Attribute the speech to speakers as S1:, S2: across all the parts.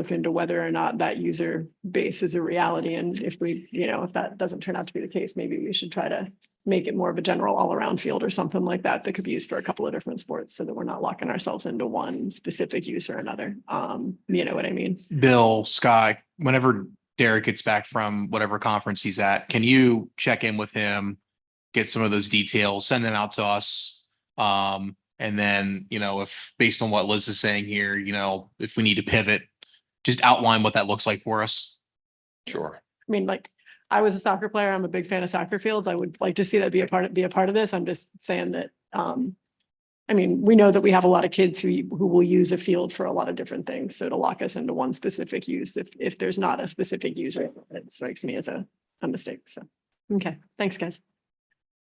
S1: look into whether or not that user base is a reality. And if we, you know, if that doesn't turn out to be the case, maybe we should try to make it more of a general all-around field or something like that that could be used for a couple of different sports so that we're not locking ourselves into one specific use or another. Um, you know what I mean?
S2: Bill, Scott, whenever Derek gets back from whatever conference he's at, can you check in with him? Get some of those details, send them out to us. Um, and then, you know, if based on what Liz is saying here, you know, if we need to pivot, just outline what that looks like for us.
S3: Sure.
S1: I mean, like, I was a soccer player. I'm a big fan of soccer fields. I would like to see that be a part of, be a part of this. I'm just saying that, um. I mean, we know that we have a lot of kids who, who will use a field for a lot of different things. So to lock us into one specific use, if, if there's not a specific user, it strikes me as a, a mistake. So, okay, thanks, guys.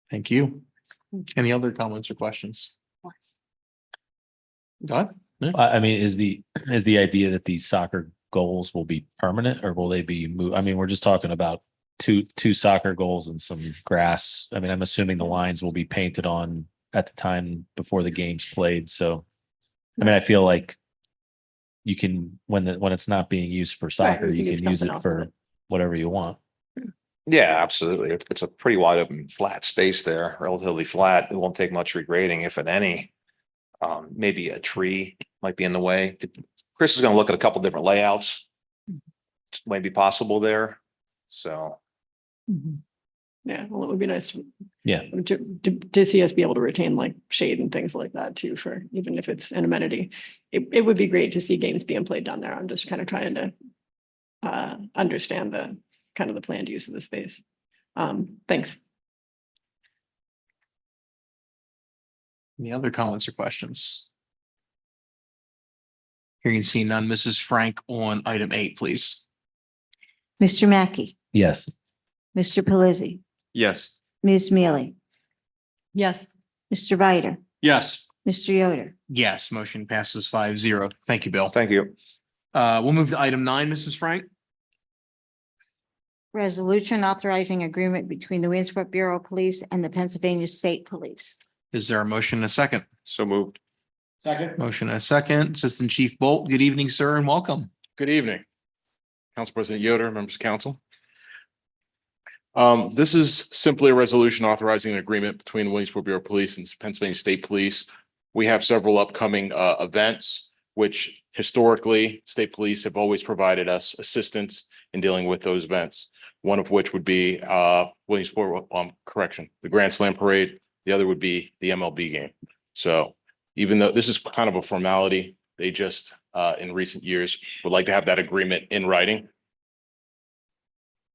S2: Thank you. Any other comments or questions? Doug?
S4: I, I mean, is the, is the idea that these soccer goals will be permanent or will they be moved? I mean, we're just talking about two, two soccer goals and some grass. I mean, I'm assuming the lines will be painted on at the time before the game's played. So, I mean, I feel like you can, when the, when it's not being used for
S1: Right,
S4: soccer,
S1: we can
S4: you
S1: do
S4: can use
S1: something
S4: it
S1: else with
S4: for
S1: it.
S4: whatever you want.
S3: Yeah, absolutely. It- It's a pretty wide open, flat space there, relatively flat. It won't take much regrading, if at any. Um, maybe a tree might be in the way. Chris is gonna look at a couple different layouts. Might be possible there, so.
S1: Yeah, well, it would be nice to,
S4: Yeah.
S1: to, to, to see us be able to retain like shade and things like that too, for even if it's an amenity. It, it would be great to see games being played down there. I'm just kind of trying to uh, understand the, kind of the planned use of the space. Um, thanks.
S2: Any other comments or questions? Hearing and seeing none, Mrs. Frank on item eight, please.
S5: Mr. Mackey,
S4: Yes.
S5: Mr. Pelisi,
S6: Yes.
S5: Ms. Mealy,
S1: Yes.
S5: Mr. Bider,
S6: Yes.
S5: Mr. Yoder,
S2: Yes, motion passes five zero. Thank you, Bill.
S3: Thank you.
S2: Uh, we'll move to item nine, Mrs. Frank.
S5: resolution authorizing agreement between the Williamsport Bureau of Police and the Pennsylvania State Police.
S2: Is there a motion and a second?
S6: So moved. Second.
S2: Motion and a second. Assistant Chief Bolt, good evening, sir, and welcome.
S6: Good evening. Council President Yoder, members of council. Um, this is simply a resolution authorizing an agreement between Williamsport Bureau of Police and Pennsylvania State Police. We have several upcoming uh events, which historically, state police have always provided us assistance in dealing with those events. One of which would be uh Williamsport, um, correction, the Grand Slam Parade. The other would be the MLB game. So even though this is kind of a formality, they just uh in recent years would like to have that agreement in writing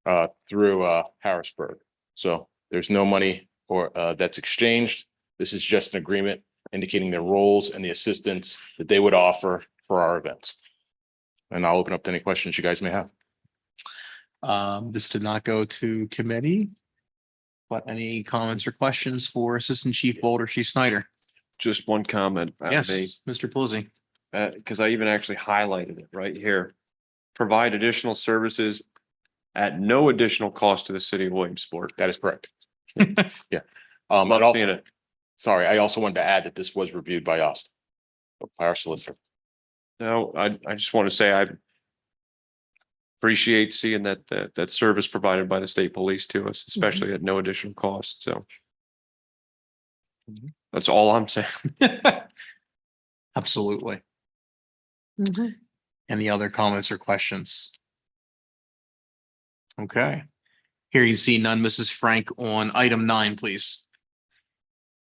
S6: uh through uh Harrisburg. So there's no money or uh that's exchanged. This is just an agreement indicating their roles and the assistance that they would offer for our events. And I'll open up to any questions you guys may have.
S2: Um, this did not go to committee. But any comments or questions for Assistant Chief Bolt or Chief Snyder?
S7: just one comment. about
S2: Yes,
S7: me,
S2: Mr. Pelisi.
S7: Uh, because I even actually highlighted it right here. Provide additional services at no additional cost to the city of Williamsport.
S6: That is correct. Yeah. Um, and
S7: Love
S6: al-
S7: seeing it.
S6: sorry, I also wanted to add that this was reviewed by us, by our solicitor.
S7: No, I, I just want to say I appreciate seeing that, that, that service provided by the state police to us, especially at no additional cost. So that's all I'm saying.
S2: Absolutely.
S5: Mm-hmm.
S2: Any other comments or questions? Okay. Here you see none, Mrs. Frank on item nine, please.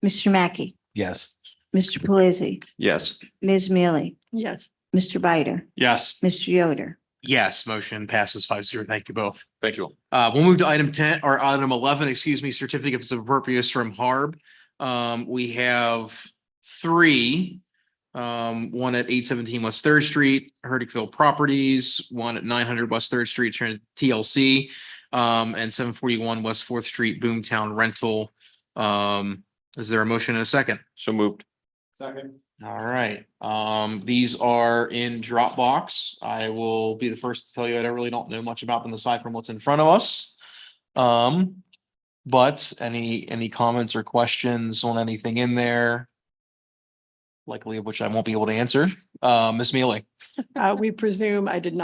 S5: Mr. Mackey,
S4: Yes.
S5: Mr. Pelisi,
S7: Yes.
S5: Ms. Mealy,
S1: Yes.
S5: Mr. Bider,
S2: Yes.
S5: Mr. Yoder,
S2: Yes, motion passes five zero. Thank you both.
S6: Thank you. all.
S2: Uh, we'll move to item ten or item eleven, excuse me, certificates of appropriateness from Harb. Um, we have three. Um, one at eight seventeen West Third Street, Herdicville Properties, one at nine hundred West Third Street, Tran- TLC. Um, and seven forty-one West Fourth Street, Boomtown Rental. Um, is there a motion in a second?
S7: So moved.
S2: All right, um, these are in Dropbox. I will be the first to tell you, that I really don't know much about them aside from what's in front of us. Um, but any, any comments or questions on anything in there? likely of which I won't be able to answer. Uh, Ms. Mealy?
S1: Uh, we presume I did not.